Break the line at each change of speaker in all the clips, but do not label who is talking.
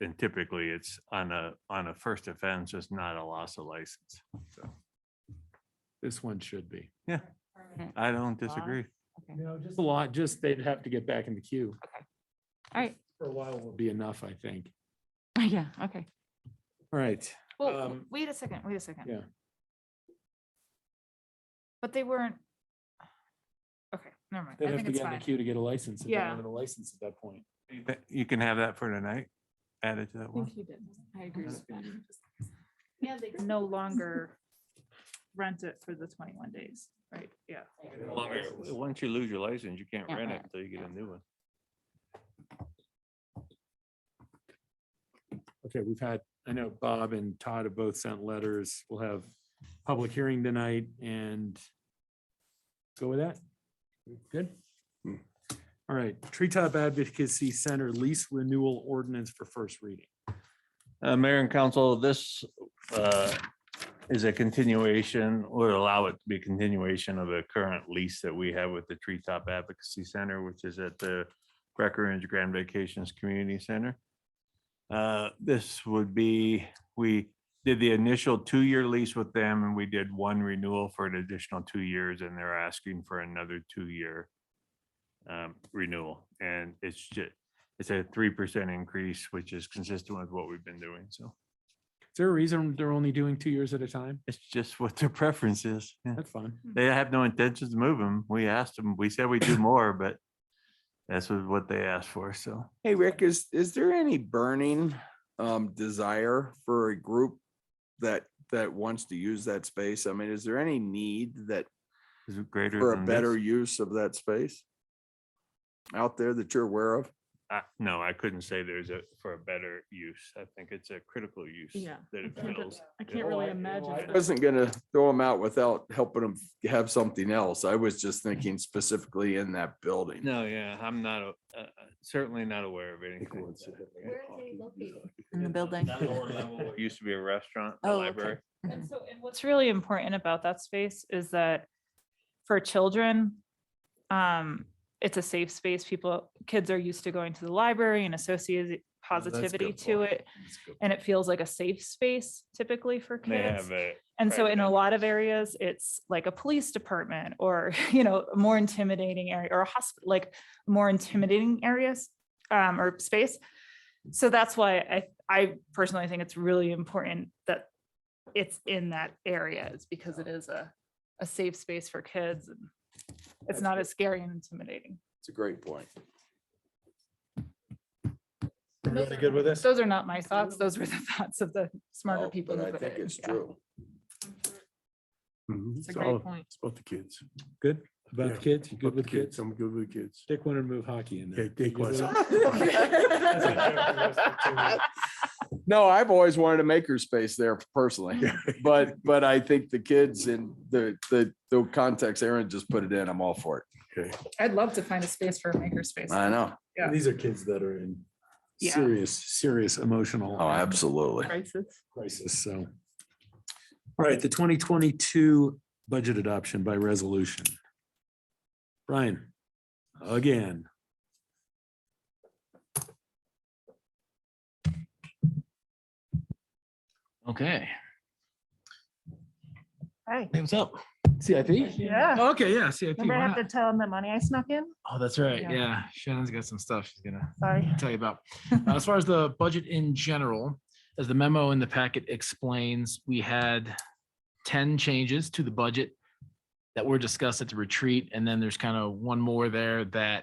and typically it's on a, on a first offense, it's not a loss of license. So
This one should be.
I don't disagree.
No, just. A lot, just they'd have to get back in the queue.
All right,
For a while will be enough, I think.
yeah, okay.
All right.
Well, w-
Um,
wait a second, wait a second.
yeah.
But they weren't. Okay, never mind.
They'd
I
have
think
to
it's
get in the
fine.
queue to get a license. if they
Yeah.
wanted A license at that point.
That- Eh, You can have that for tonight, added to that one.
you did. I agree
with that.
Yeah, they can no longer rent it for the twenty-one days, right? Yeah.
Once you lose your license, you can't
Can't
rent it
rent,
until you get
yeah.
a new one.
Okay, we've had, I know Bob and Todd have both sent letters. We'll have public hearing tonight and go with that. Good?
Hmm.
All right, Treetop Advocacy Center lease renewal ordinance for first reading.
Uh, Mayor and Council, this uh, is a continuation, would allow it to be a continuation of the current lease that we have with the Treetop Advocacy Center, which is at the Breckenridge Grand Vacations Community Center. Uh, This would be, we did the initial two-year lease with them and we did one renewal for an additional two years and they're asking for another two-year um, renewal. And it's just, it's a three percent increase, which is consistent with what we've been doing. So
Is there a reason they're only doing two years at a time?
it's just what their preference is. Yeah.
That's fun.
They have no intentions to move them. We asked them, we said we do more, but that's what what they asked for. So
Hey, Rick, is, is there any burning um, desire for a group that, that wants to use that space? I mean, is there any need that,
is it greater
for a
than
better
this?
use of that space? Out there that you're aware of?
I- No, I couldn't say there's a, for a better use. I think it's a critical use.
Yeah,
That
I
it
can't-
fills.
I can't
Oh, I-
really
oh,
imagine.
I
that.
Wasn't gonna throw them out without helping them have something else. I was just thinking specifically in that building.
No, yeah, I'm not, a- uh, uh, certainly not aware of anything. like that.
Where are they located?
In the building.
That lower level, what Used to be a restaurant, a
Oh, okay.
library.
And so, and what's really important about that space is that for children, um, it's a safe space. People, kids are used to going to the library and associate
Oh, that's a good
positivity to
point.
it.
That's a good
And it feels like a safe space typically for
They
kids.
have a
And so
private
in a lot of areas, it's like a police department or, you know, a more intimidating area or a hospital, like more intimidating areas um, or space. So that's why I, I personally think it's really important that it's in that area is because it is a, a safe space for kids. and It's
That's
not
good.
as scary and intimidating.
It's a great point.
Everybody good with this?
Those are not my thoughts. Those were the thoughts of the smarter
Oh,
people.
But
who
I
put
think
it.
it's
Yeah.
true.
It's Mm-hmm.
It's a great point.
about the kids.
Good? About the
Yeah,
kids? You
About
good with
the
kids?
I'm good with kids.
Dick wanted to move hockey in there.
Yeah, Dick
You good with
was.
it?
No, I've always wanted a maker space there personally, but, but I think the kids and the, the, the context Aaron just put it in, I'm all for
I'd love to find a space for a
it.
makerspace.
I know.
Yeah.
These are kids that are in.
Yeah.
Serious, serious emotional.
Oh, absolutely.
Crisis.
crisis, so. All right, the twenty twenty-two budget adoption by resolution. Brian, again.
Okay.
Hi.
Name's up. CIP?
Yeah.
Okay, yeah, CIP.
Remember I
why
have to
not?
tell them the money I snuck in?
Oh, that's right.
Yeah.
Yeah, Shannon's got some stuff she's gonna
Sorry.
tell you about. Uh, As far as the budget in general, as the memo in the packet explains, we had ten changes to the budget that were discussed at the retreat, and then there's kind of one more there that I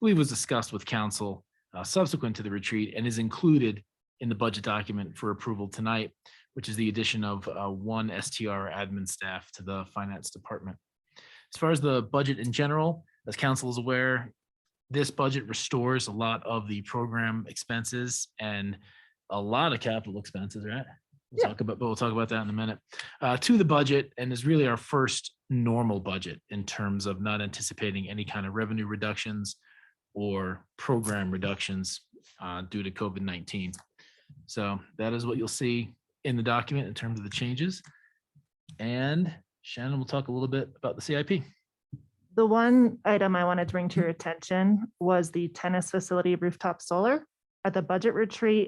believe was discussed with council uh, subsequent to the retreat and is included in the budget document for approval tonight, which is the addition of uh, one STR admin staff to the finance department. As far as the budget in general, as council is aware, this budget restores a lot of the program expenses and a lot of capital expenses, right? We'll talk about, but we'll talk about that in a minute. Uh, to the budget and is really our first normal budget in terms of not anticipating any kind of revenue reductions or program reductions uh, due to COVID-19. So that is what you'll see in the document in terms of the changes. And Shannon will talk a little bit about the CIP.
The one item I wanted to bring to your attention was the tennis facility rooftop solar. At the budget retreat,